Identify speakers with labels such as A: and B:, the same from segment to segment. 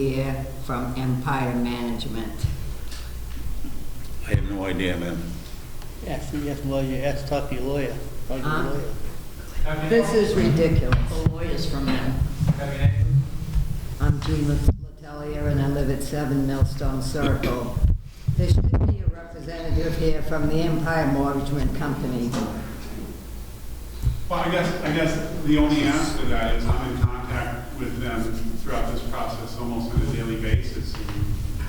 A: here from Empire Management.
B: I have no idea, ma'am.
C: Ask, you ask, well, you ask, talk to your lawyer, talk to
A: Huh?
C: your lawyer.
D: Have you-
A: This is ridiculous. The lawyers from them.
D: have you-
A: I'm Jean Letelier, and I live at 7 Millstone Circle. There should be a representative here from the Empire Management Company.
E: Well, I guess, I guess the only answer to that is I'm in contact with them throughout this process almost on a daily basis.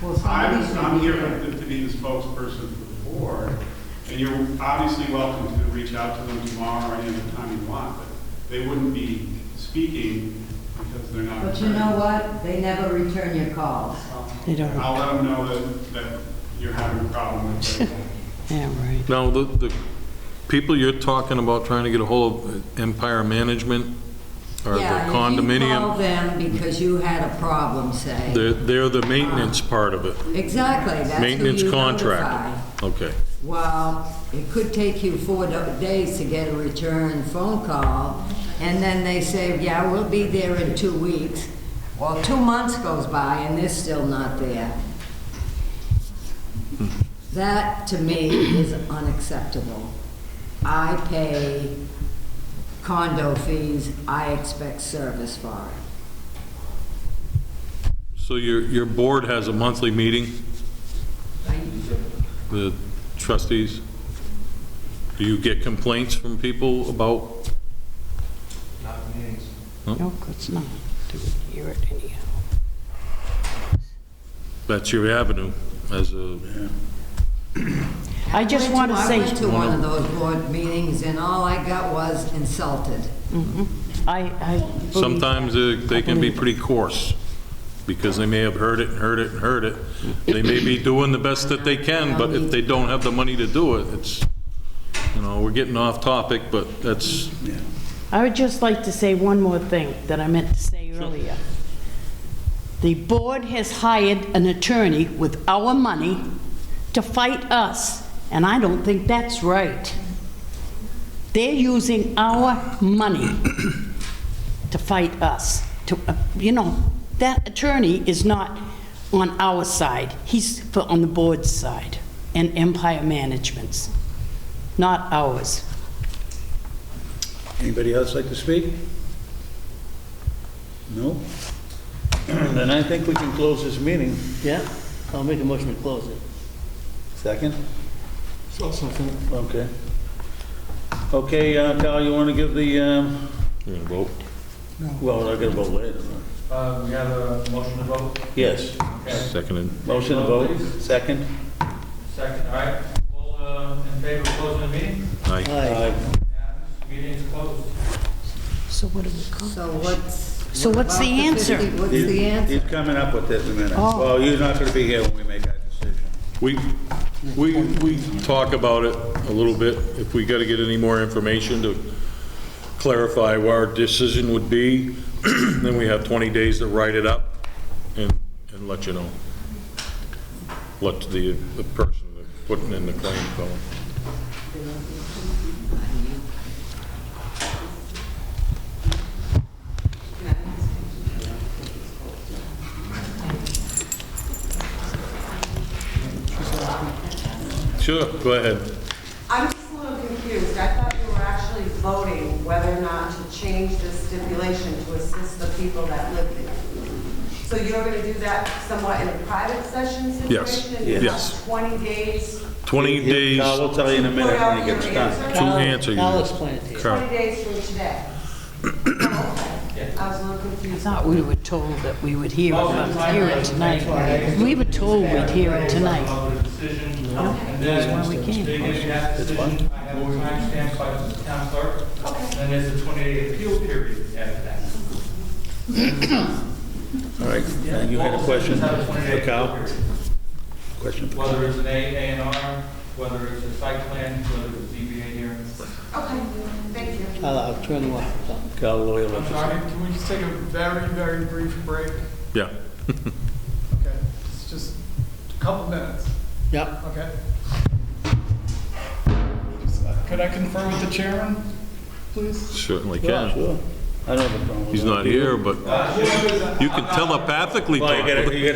A: Well, somebody
E: I'm,
A: should
E: I'm
A: be
E: here
A: here.
E: to to be the spokesperson for the board, and you're obviously welcome to reach out to them tomorrow or any other time you want, but they wouldn't be speaking because they're not.
A: But you know what? They never return your calls.
F: They don't,
E: I'll let them know that, that you're having a problem with it.
F: yeah, right.
G: Now, the, the people you're talking about trying to get a hold of Empire Management or the
A: Yeah, You called
G: condominium,
A: them because you had a problem, say.
G: they're, they're the maintenance part of it.
A: Exactly, that's who
G: Maintenance
A: you
G: contractor.
A: notify.
G: Okay.
A: Well, it could take you four do- days to get a return phone call, and then they say, yeah, we'll be there in two weeks. Well, two months goes by and they're still not there. That, to me, is unacceptable. I pay condo fees, I expect service for it.
G: So your, your board has a monthly meeting, the trustees? Do you get complaints from people about,
D: Not meetings.
F: No, it's not. Do we hear it anyhow?
G: that's your avenue as a,
F: I just want to
A: I went
F: say,
A: to one of those board meetings and all I got was insulted.
F: I, I. believe-
G: sometimes uh, they can be
F: I believe-
G: pretty coarse because they may have heard it and heard it and heard it. They may be doing the best that they can, but if they don't have the money to do it, it's, you know, we're getting off topic, but that's,
F: I would just like to say one more thing that I meant to say earlier. The board has hired an attorney with our money to fight us, and I don't think that's right. They're using our money to fight us, to, uh, you know, that attorney is not on our side, he's for- on the board's side, and Empire Management's, not ours.
B: Anybody else like to speak? No? Then I think we can close this meeting.
C: Yeah, I'll make a motion to close it.
B: Second?
C: Something.
B: Okay. Okay, uh, Kyle, you want to give the, um,
G: you're gonna vote.
B: well, I got to vote later.
D: Uh, we have a motion to vote?
B: Yes,
D: Okay,
G: Seconded.
B: motion to vote, second.
D: second, all right. All uh, in favor of closing the meeting?
G: Aye.
B: Uh,
C: Aye.
D: Unanimous. Meeting is closed.
F: So what do we call
A: So what's?
F: So
A: what
F: what's
A: about
F: the answer?
A: 50? What's
B: He's-
A: the answer?
B: He's coming up with this in a minute.
F: Oh.
B: Well, you're not going to be here when we make that decision.
G: We, we, we talk about it a little bit, if we gotta get any more information to clarify what our decision would be, then we have 20 days to write it up and, and let you know. Let the, the person that putting in the claim go. Sure, go ahead.
H: I'm just a little confused. I thought you were actually voting whether or not to change the stipulation to assist the people that live there. So you're going to do that somewhat in a private session
G: Yes,
H: situation? and
G: yes.
H: you have 20 days,
G: 20 days
B: I
G: to
B: will tell you in a minute when he gets done.
C: I'll-
G: answer you.
C: I'll explain it to you.
H: 20 days from today? Oh, Okay. I was a little
F: I
H: confused.
F: thought we were told that we would hear
D: Motion
F: it, hear it
D: to
F: tonight. We were told we'd hear it tonight.
D: Vote a decision. And
F: That's why
D: then
F: we
D: they
F: came.
D: give you that decision. I have a timestamp by the town clerk. And there's a 20-day appeal period after that.
B: All right, and you had a
D: All
B: question
D: sessions have a
B: for
D: 20-day appeal
B: Kyle?
D: period.
B: Question?
D: Whether it's an A, A and R, whether it's a site plan, whether it's a ZBA hearing.
H: Okay, thank you.
C: I'll, I'll turn you off. so.
B: Kyle Loyal.
I: I'm sorry, can we just take a very, very brief break?
G: Yeah.
I: Okay, it's just a couple minutes,
C: Yep.
I: okay? Could I confer with the chairman, please?
G: Certainly can.
B: Sure.
J: I don't have a problem with that.
B: He's not here, but you can telepathically
G: Well, you
B: talk.
G: gotta- you gotta